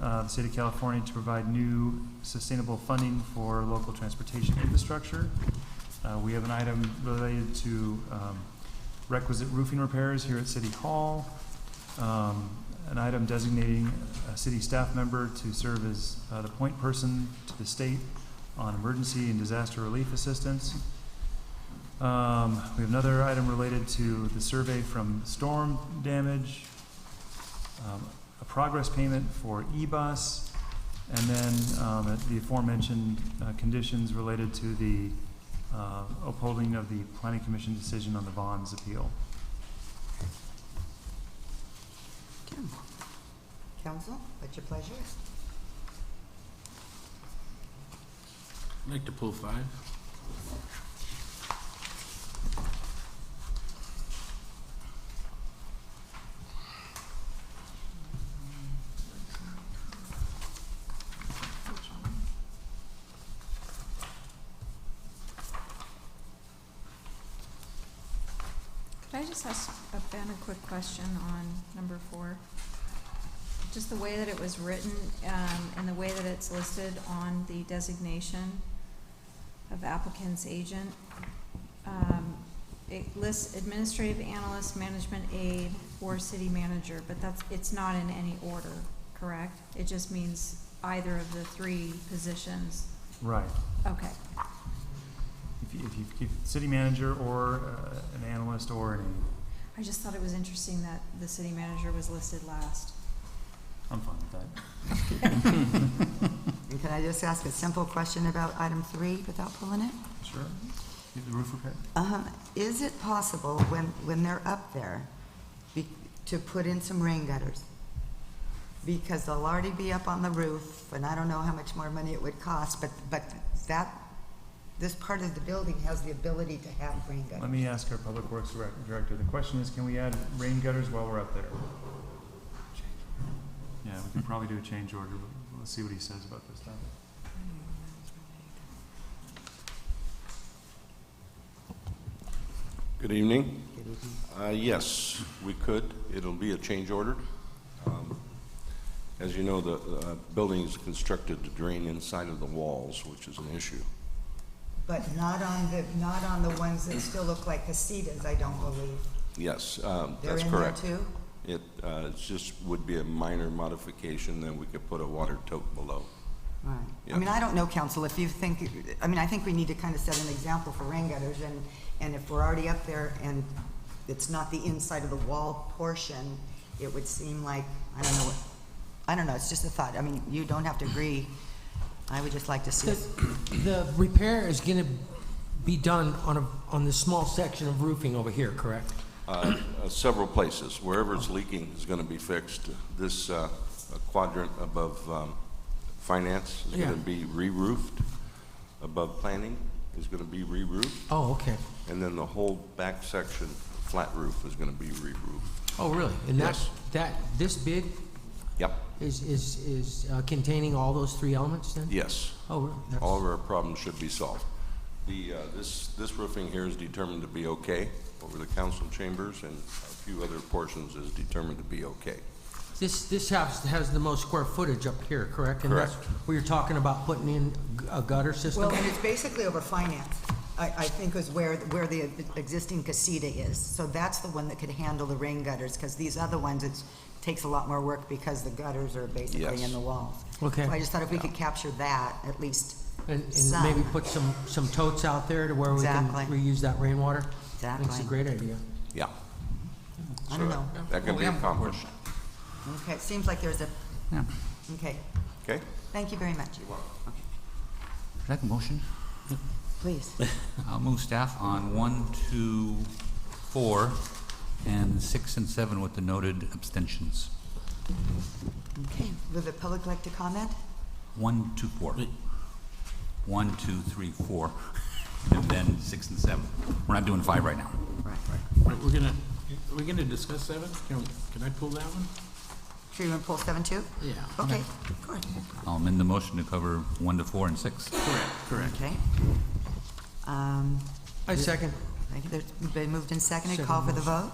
uh, the state of California to provide new sustainable funding for local transportation infrastructure. Uh, we have an item related to, um, requisite roofing repairs here at City Hall. Um, an item designating a city staff member to serve as, uh, the point person to the state on emergency and disaster relief assistance. Um, we have another item related to the survey from storm damage, um, a progress payment for E-Bus, and then, um, the aforementioned, uh, conditions related to the, uh, upholding of the planning commission decision on the bonds appeal. Council, what's your pleasure? I'd like to pull five. Could I just ask uh, Ben a quick question on number four? Just the way that it was written, um, and the way that it's listed on the designation of applicant's agent. Um, it lists administrative analyst, management aide, or city manager, but that's, it's not in any order, correct? It just means either of the three positions. Right. Okay, If you, if you, if city manager or, uh, an analyst or an, I just thought it was interesting that the city manager was listed last. I'm fine with that. And can I just ask a simple question about item three without pulling it? Sure. You have the roof repair? Uh, Is it possible when, when they're up there, be- to put in some rain gutters? Because they'll already be up on the roof, and I don't know how much more money it would cost, but, but that, this part of the building has the ability to have rain Let gutters. me ask our public works direct- director, the question is, can we add rain gutters while we're up there? Yeah, we could probably do a change order, but let's see what he says about this topic. Good evening. Uh, Yes, we could. It'll be a change order. Um, As you know, the uh, building is constructed to drain inside of the walls, which is an issue. But not on the, not on the ones that still look like casitas, I don't believe. Yes, um, They're that's in there correct. too? It uh, it's just would be a minor modification, then we could put a water tote below. Right. Yeah. I mean, I don't know, council, if you think, I mean, I think we need to kind of set an example for rain gutters, and, and if we're already up there and it's not the inside of the wall portion, it would seem like, I don't know, what I don't know, it's just a thought. I mean, you don't have to agree. I would just like to see, The, the repair is gonna be done on a, on this small section of roofing over here, correct? Uh, uh, Several places, wherever it's leaking is going to be fixed. This uh, quadrant above um, finance is going Yeah. to be re-roofed. Above planning is going to be re-roofed. Oh, okay. And then the whole back section, flat roof, is going to be re-roofed. Oh, really? And that, Yes. that, this big Yep, is, is, is uh, containing all those three elements then? yes. Oh, really? That's- All of our problems should be solved. The, uh, this, this roofing here is determined to be okay over the council chambers, and a few other portions is determined to be okay. This, this house has the most square footage up here, correct? And that's Correct. where you're talking about putting in g- a gutter well, system? and it's basically over finance, I, I think is where, where the existing casita is. So that's the one that could handle the rain gutters, because these other ones, it takes a lot more work because the gutters are basically in Yes. the walls. Okay. So I just thought if we could capture that, at least And, and some. maybe put some, some totes out there to where we can Exactly. reuse that rainwater? That's Exactly. a great idea. Yeah. I don't So know. That can be accomplished, Okay, it seems like there's a, Yeah. okay, okay? thank you very much. Should I have a motion? Please. I'll move staff on one, two, four, and six and seven with the noted abstentions. Okay, would the public like to comment? One, two, four. One, two, three, four, and then six and seven. We're not doing five right now. Right. All right, We're gonna, we're gonna discuss seven? Can, can I pull that one? Sure, you want to pull seven two? Yeah. Okay, of course. I'll amend the motion to cover one to four and six. Correct, correct. Okay. Um, I second. thank you. There's been moved and seconded, call for the vote?